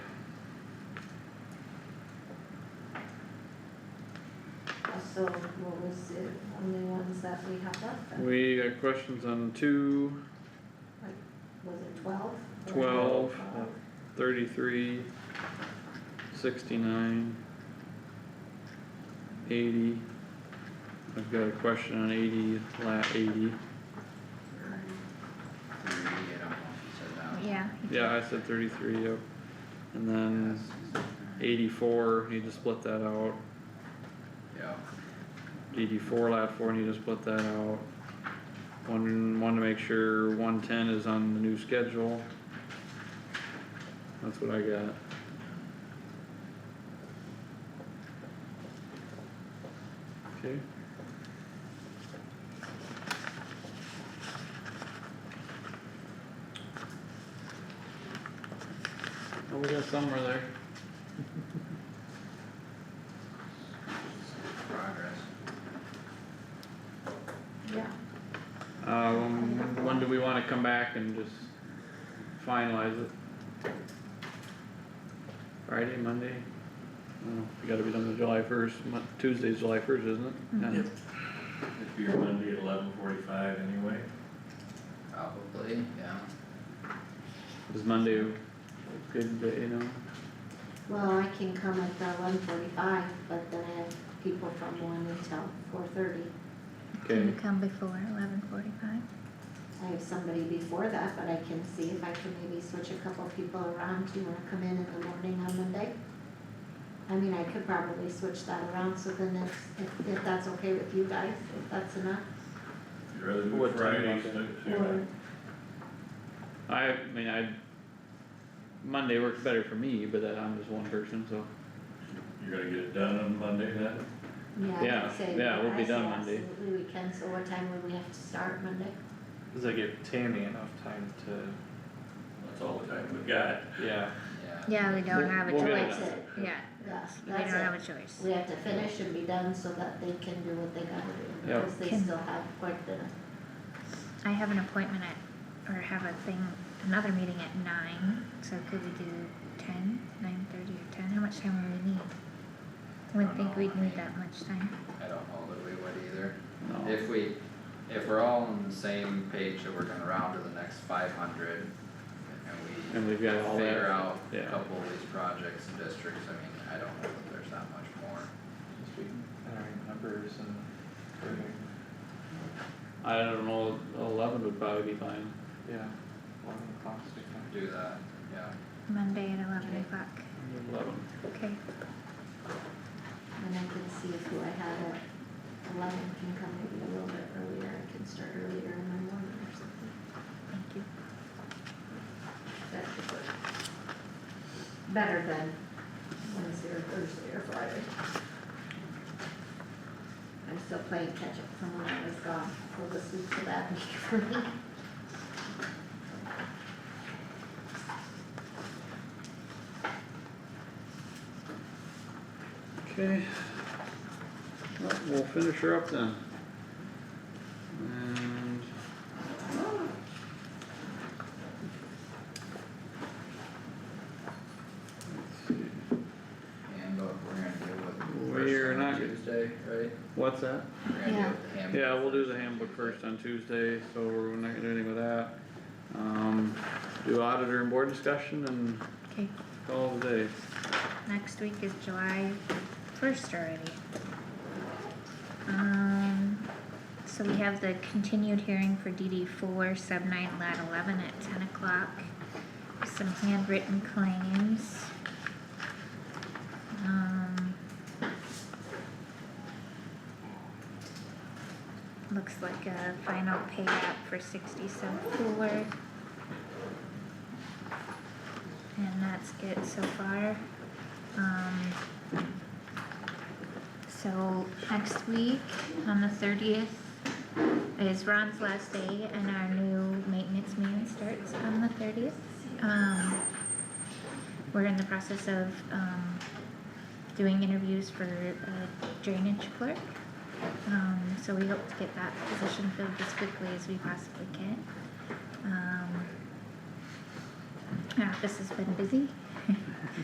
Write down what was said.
so what was it, only ones that we have left then? We got questions on two, Was it twelve? Twelve. thirty-three, sixty-nine, eighty. I've got a question on eighty, lat eighty. Thirty, I don't know if you Yeah. Yeah, I said thirty-three, yep. And then said that. eighty-four, need to split that out. Yeah, DD four, lat four, need to split that out. One, one to make sure one ten is on the new schedule. That's what I got. Okay. Oh, we got somewhere there. progress. Yeah, Uh, when, when do we wanna come back and just finalize it? Friday, Monday? I don't know, we gotta be done with July first, Mon- Tuesday's July first, isn't it? Yeah. Yep. It'd be Monday at eleven forty-five anyway. Probably, yeah. Is Monday a good day, you know? well, I can come at the one forty-five, but then I have people from one until four thirty. Okay, Can you come before eleven forty-five? I have somebody before that, but I can see if I can maybe switch a couple people around, do you wanna come in in the morning on Monday? I mean, I could probably switch that around, so then if, if, if that's okay with you guys, if that's enough, You'd rather do What time it Friday, Monday? stick to or, it. I mean, I, Monday works better for me, but uh, I'm just one person, so, You're gonna get it done on Monday then? yeah, I Yeah, would say, yeah, we'll be I say done Monday. absolutely we can, so what time would we have to start Monday? Does that give Tammy enough time to, That's all the time we've got. yeah, Yeah. Yeah, we don't We'll- have a we'll get choice, it. That's it, yeah, yeah, we don't that's have it, a choice. we have to finish and be done so that they can do what they gotta do, Yep. because they Can- still have quite the, I have an appointment at, or have a thing, another meeting at nine, so could we do ten, nine thirty or ten, how much time would we need? I Wouldn't think we'd need that much time, I don't know that we would either. no. If we, if we're all on the same page that we're gonna round to the next five hundred and And we've got all we figure that, out a yeah. couple of these projects and districts, I mean, I don't know that there's that much more. just be entering numbers and everything, I don't know, eleven would probably be fine. yeah, eleven o'clock's a good time. Do that, yeah. Monday at eleven Okay. o'clock, Mm-hmm. Eleven. okay, and I can see if who I had at eleven can come maybe a little bit earlier, I can start earlier in the morning or something, thank you. that could work. Better than Wednesday or Thursday or Friday. I'm still playing catch up from when I was gone, so this week's a bad week for me. Okay. Well, we'll finish her up then. And. Let's see. Handbook, we're gonna deal with the We are first one on not- Tuesday, right? What's that? We're gonna deal with the handbook. Yeah, we'll do the handbook first on Tuesday, so we're not gonna do anything with that. Um, do auditor and board discussion and Okay, call it a day. next week is July first already. Um, so we have the continued hearing for DD four, sub nine, lat eleven at ten o'clock. Some handwritten claims. Um. Looks like a final pay app for sixty sub four. And that's it so far. Um. So next week, on the thirtieth, is Ron's last day and our new maintenance meeting starts on the thirtieth. Um, we're in the process of, um, doing interviews for a drainage clerk. Um, so we hope to get that position filled as quickly as we possibly can. Um, our office has been busy.